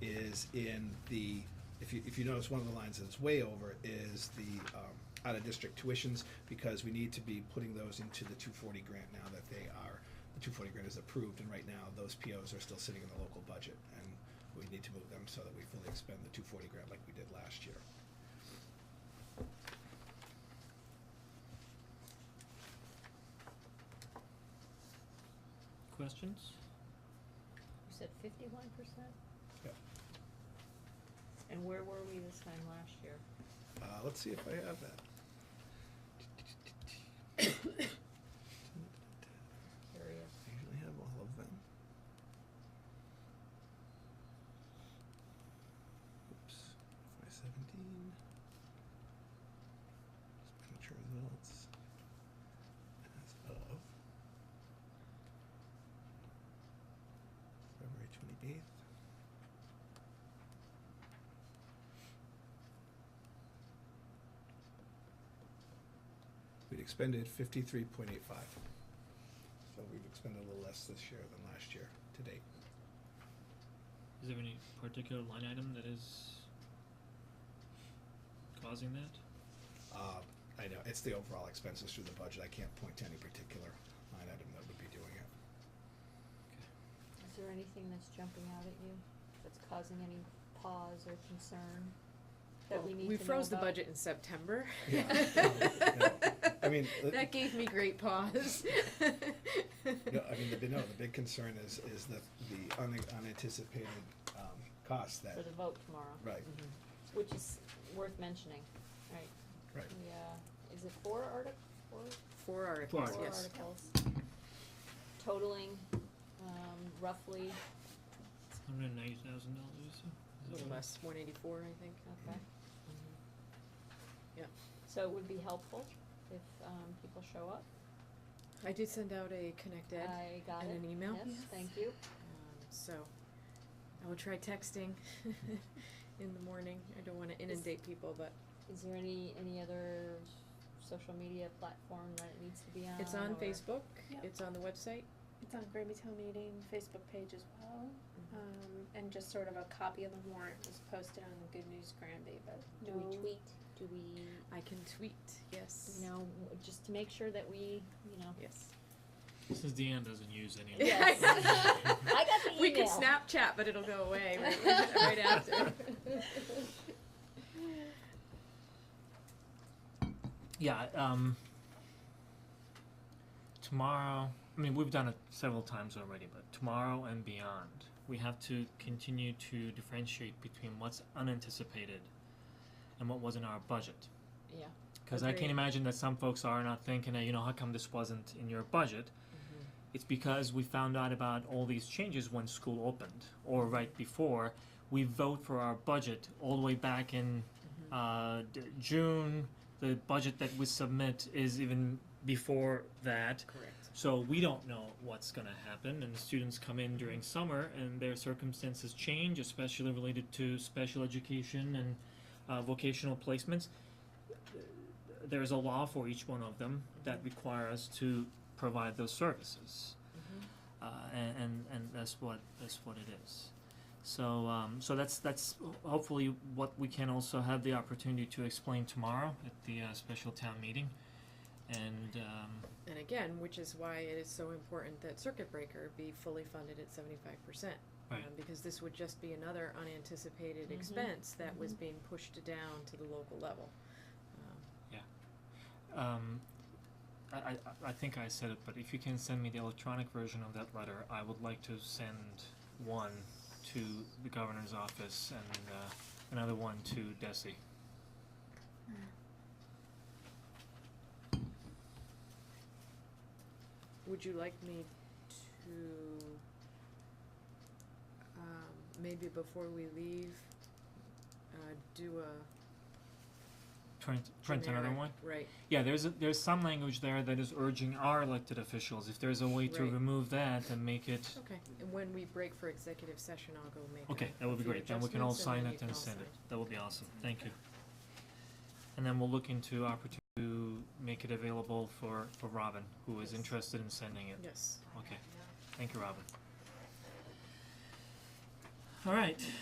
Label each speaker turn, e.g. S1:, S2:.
S1: is in the, if you, if you notice, one of the lines that's way over is the, um, out-of-district tuitions, because we need to be putting those into the two forty grant now that they are, the two forty grant is approved, and right now, those POs are still sitting in the local budget, and we need to move them so that we fully expend the two forty grant like we did last year.
S2: Questions?
S3: You said fifty-one percent?
S1: Yep.
S3: And where were we this time last year?
S1: Uh, let's see if I have that.
S3: Curious.
S1: I usually have all of them. Oops, five seventeen. Just making sure results as of February twenty eighth. We'd expended fifty-three point eight five. So we've expended a little less this year than last year to date.
S2: Is there any particular line item that is causing that?
S1: Uh, I know, it's the overall expenses through the budget. I can't point to any particular line item that would be doing it.
S3: Is there anything that's jumping out at you, that's causing any pause or concern that we
S4: Well,
S3: need to know
S4: We froze the
S3: about?
S4: budget in September.
S1: Yeah. Yeah. I mean, uh,
S4: That gave me great pause.
S1: No, I mean, the, no, the big concern is, is the, the un- unanticipated, um, costs that,
S3: For the vote tomorrow.
S1: right,
S4: Mhm.
S3: Which is worth mentioning, right?
S1: right.
S3: Yeah, is it four artic, four,
S4: Four articles,
S3: four
S4: yes.
S3: articles? Totaling, um, roughly,
S2: Hundred and ninety thousand dollars or so?
S4: A little less, one eighty-four, I think. Mm-hmm.
S3: okay.
S4: Yeah.
S3: So it would be helpful if, um, people show up.
S4: I did send out a Connect Ed,
S3: I got
S4: in
S3: it.
S4: an email?
S3: Yes,
S4: Yes.
S3: thank you.
S4: um, so I will try texting in the morning. I don't wanna inundate people, but
S3: Is there any, any other social media platform that it needs to be on?
S4: it's on
S3: or-
S4: Facebook,
S5: Yeah.
S4: it's on the website.
S5: It's on Grammy Town Meeting Facebook page as well, um, and just sort of a copy of the warrant was posted on the Good News Granby, but
S3: Do
S5: no.
S3: we tweet? Do we,
S4: I can tweet, yes.
S3: you know, w- just to make sure that we, you know.
S4: Yes.
S2: Since Deanne doesn't use any of
S4: Yeah.
S2: that.
S3: Yes. I got the email.
S4: We can Snapchat, but it'll go away right- right after.
S2: Yeah, um, tomorrow, I mean, we've done it several times already, but tomorrow and beyond, we have to continue to differentiate between what's unanticipated and what was in our budget.
S4: Yeah.
S2: Because I
S4: Agreed.
S2: can imagine that some folks are not thinking, "Hey, you know, how come this wasn't in your budget?
S4: Mm-hmm.
S2: It's because we found out about all these changes when school opened or right before. We vote for our budget all the way back in uh, d- June. The budget that we submit is even before that.
S4: Correct.
S2: So we don't know what's going to happen, and students come in during summer, and their circumstances change, especially related to special education and uh, vocational placements. There's a law for each one of them that require us to provide those services,
S4: Mm-hmm.
S2: uh, and, and and that's what that's what it is. So um, so that's that's hopefully what we can also have the opportunity to explain tomorrow at the uh, special town meeting, and. Um,
S4: And again, which is why it is so important that circuit breaker be fully funded at seventy-five percent. um,
S2: Right.
S4: Because this would just be another unanticipated
S3: Mhm.
S4: expense that was being pushed down to the local level. Um,
S2: Um, I, I, I think I said it, but if you can send me the electronic version of that letter, I would like to send one to the governor's office and uh, another one to Desi.
S4: Would you like me to, um, maybe before we leave, uh, do a
S2: Print, print another
S4: generic-
S2: one.
S4: Right,
S2: Yeah, there's a, there's some language there that is urging our elected officials. If there's a way to
S4: Right.
S2: remove that and make it,
S4: okay, and when we break for executive session, I'll go make a
S2: okay, that would be
S4: few
S2: great. Then we can all
S4: adjustments and
S2: sign
S4: then
S2: it and
S4: you can all
S2: send it.
S4: sign.
S2: That would be awesome. Thank you. And then we'll look into opportunity to make it available for for Robin, who is
S4: Yes.
S2: interested in sending it.
S4: Yes.
S2: Okay, thank you, Robin. All right,